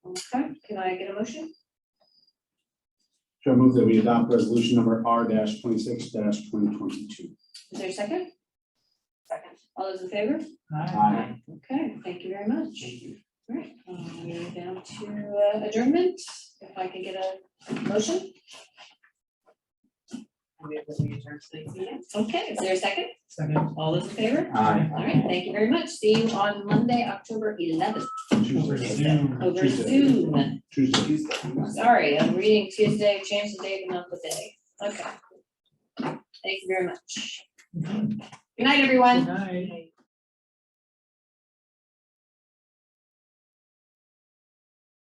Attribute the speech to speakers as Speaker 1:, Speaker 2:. Speaker 1: Okay, can I get a motion?
Speaker 2: So I move that we adopt resolution number R twenty-six twenty twenty-two.
Speaker 1: Is there a second? Second. All those in favor?
Speaker 2: Aye.
Speaker 1: Okay, thank you very much. All right, um, we're down to uh, adjournment, if I could get a motion, okay, is there a second?
Speaker 3: Second.
Speaker 1: All those in favor?
Speaker 2: Aye.
Speaker 1: All right, thank you very much, see you on Monday, October eleventh,
Speaker 3: Over Zoom.
Speaker 1: over
Speaker 2: Tuesday.
Speaker 1: Zoom.
Speaker 2: Tuesday.
Speaker 1: Sorry, I'm reading Tuesday, change the date and not the day, okay. Thank you very much. Good night, everyone.
Speaker 3: Good night.